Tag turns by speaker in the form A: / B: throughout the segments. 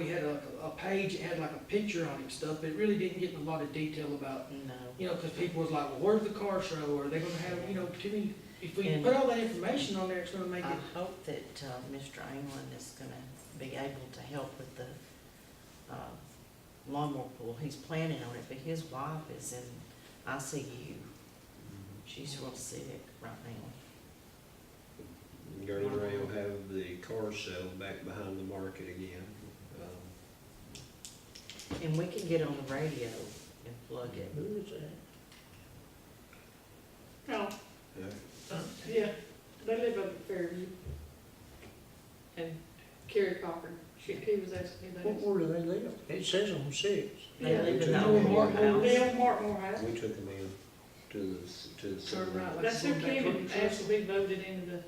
A: had a, a page, that had like a picture on it and stuff, but it really didn't get in a lot of detail about,
B: No.
A: you know, because people was like, well, where's the car show? Are they gonna have, you know, too many, if we
B: And-
A: put all that information on there, it's gonna make
B: I
A: it,
B: hope that uh, Mr. England is gonna be able to help with the uh, lawnmower pool. He's planning on it, but his wife is in ICU. She's real sick right now.
C: Gurney Ray will have the car sale back behind the market again. Um,
B: And we can get on the radio and plug it.
D: Who is that?
E: No,
C: yeah.
E: yeah, they live up at Fairview. And Carrie Cochran, she, he was asking me
D: What
E: that.
D: ward do they live? It says on six.
B: They
E: Yeah.
B: live in
C: They
B: the
C: live
B: old
C: in
B: Moore
C: the
B: house.
E: They own Martmore House.
C: We took them in to the, s- to the.
A: Turn right, like-
C: city.
E: That's who came and asked to be voted into the.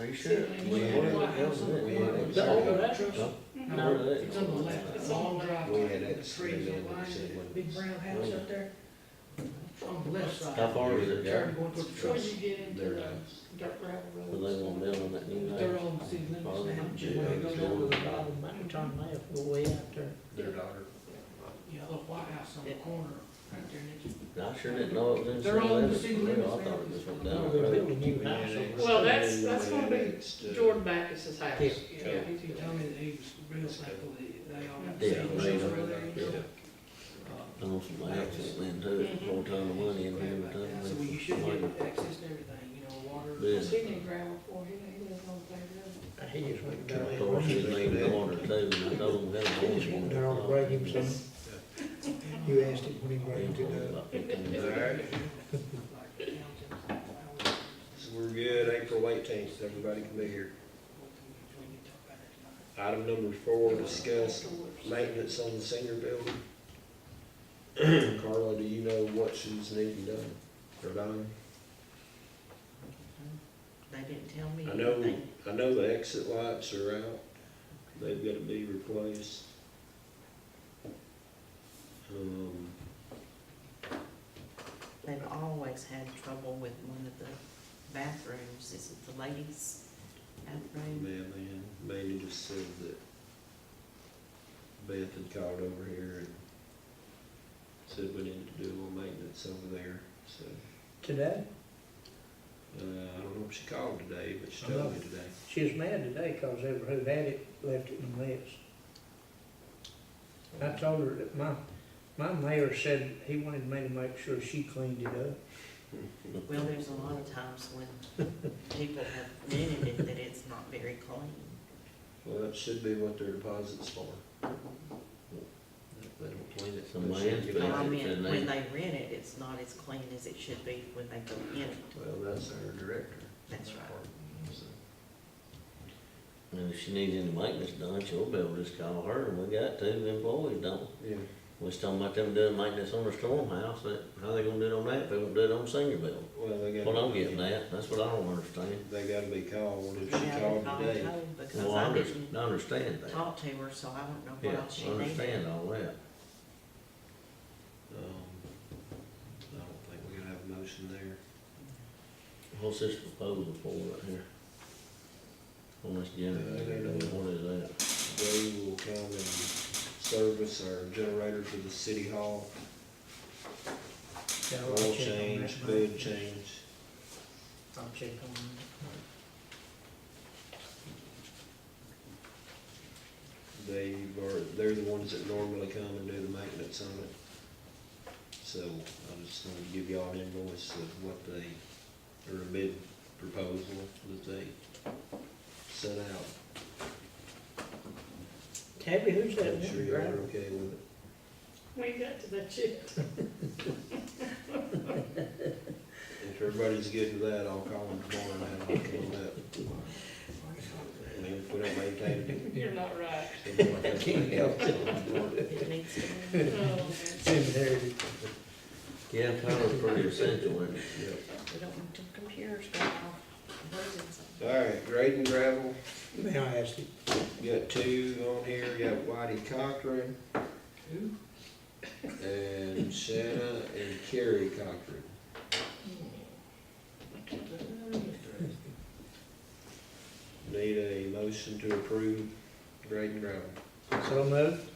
F: Are you sure?
E: sure?
C: We had it. We had it.
D: The old address?
C: Huh?
E: Mm-hmm.
D: No.
A: it's on the left, it's on the drive,
C: We
A: with
C: had
A: the
C: it, and
A: trees
C: then
A: and
C: it
A: lines,
C: said
A: that
C: what-
A: big brown house up there. It's on the left side.
F: How far is it,
A: Turn
F: Gary?
A: going toward the
E: Before
A: truck.
E: you get into
C: Their
E: the
C: house.
E: dirt gravel roads.
F: But they won't build on that new house.
A: They're on the city limits now,
F: Well,
A: just
D: When
A: where
D: they
A: it
D: go
A: goes
D: down
A: over
D: to
A: the
D: the
A: bottom.
D: bottom, I can turn left, go way out there.
C: Their daughter.
A: Yeah, the white house on the corner, right there, and it's
F: I sure didn't know it was in
A: They're
F: city
A: all in the
F: limits.
A: city
F: Well,
A: limits
F: I thought
A: now.
F: it just went
D: No,
F: down the
D: they're
F: road.
D: building new house over there.
E: Well, that's- that's
C: We
E: gonna be
C: annexed, uh,
E: Jordan Backus's house. Yeah,
D: Yeah.
E: he's
A: He told me that he was real thankful that they all got
F: Yeah,
A: to see him
F: they
A: over
F: know.
A: there, you know? Uh,
F: Done some accident then too,
A: Mm-hmm.
F: whole ton of money in here, but
A: So well, you should get access to everything, you know, water.
F: Yeah.
E: Cause he didn't gravel for, he, he lives on the playground.
D: He just went down
F: Of
D: there.
F: course, his
D: He
F: name Warner too, and I told him that
D: just went down and bragged himself. You asked him when he bragged it up.
C: Alright, so we're good, April eighteenth, everybody can be here. Item number four, discuss maintenance on the senior building. Carla, do you know what she's needing done, or done?
B: They didn't tell me
C: I know,
B: anything.
C: I know the exit lights are out, they've gotta be replaced. Um,
B: They've always had trouble with one of the bathrooms. Is it the ladies' bathroom?
C: man, man, Mandy just said that Beth had called over here and said we needed to do a little maintenance over there, so,
D: Today,
C: uh, I don't know if she called today, but she
D: I know.
C: told me today.
D: she was mad today because ever who had it left it in the mess. I told her that my, my mayor said he wanted me to make sure she cleaned it up.
B: Well, there's a lot of times when people have rented it that it's not very clean.
C: Well, that should be what their deposit's for. If They don't clean it.
F: Some
C: they should get
F: landfill.
B: Or I
C: it.
B: mean, when they rent it, it's not as clean as it should be when they go in it.
C: Well, that's our director.
B: That's right.
C: So,
F: And if she needs any maintenance done, she'll be able to just call her, and we got two employees, don't we?
C: Yeah,
F: We was talking about them doing maintenance on the storm house, that, how they gonna do it on that, if they won't do it on senior building?
C: well, they gotta.
F: What I'm getting at, that's what I don't understand.
C: They gotta be called, if she
B: Yeah,
C: called
B: I'll
C: today,
B: tell Because
F: Well, I
B: I
F: under-
B: didn't
F: I understand that.
B: talk to her, so I don't know what
F: Yeah,
B: else
F: I
B: she needed.
F: understand all that.
C: um, I don't think we're gonna have a motion there.
F: What's this proposal for right here? On this generator, what is that?
C: They will come and service our generator to the city hall,
B: Oh,
D: Yeah, I'll
C: oil
D: check on
C: change,
D: that.
C: bed change.
D: I'll check on that.
C: They are, they're the ones that normally come and do the maintenance on it. So I just want to give y'all an invoice of what they, or a bid proposal that they sent out.
D: Tabby, who's that?
C: I'm sure y'all are okay with it.
E: We ain't got to that yet.
C: If everybody's good with that, I'll call them tomorrow and have them come up. I mean, if we don't maintain
E: You're not right.
C: it. I can't help it.
B: It needs to be.
E: Oh, No.
D: Inherited.
F: Yeah, power's pretty essential, isn't it?
C: Yep.
B: We don't want them computers going off. buzzing something.
C: All right, grading gravel.
D: May I ask you,
C: You got two on here, you got Whitey Cochran
A: Who?
C: and Shanna and Kerry Cochran. Need a motion to approve grading gravel.
D: so moved?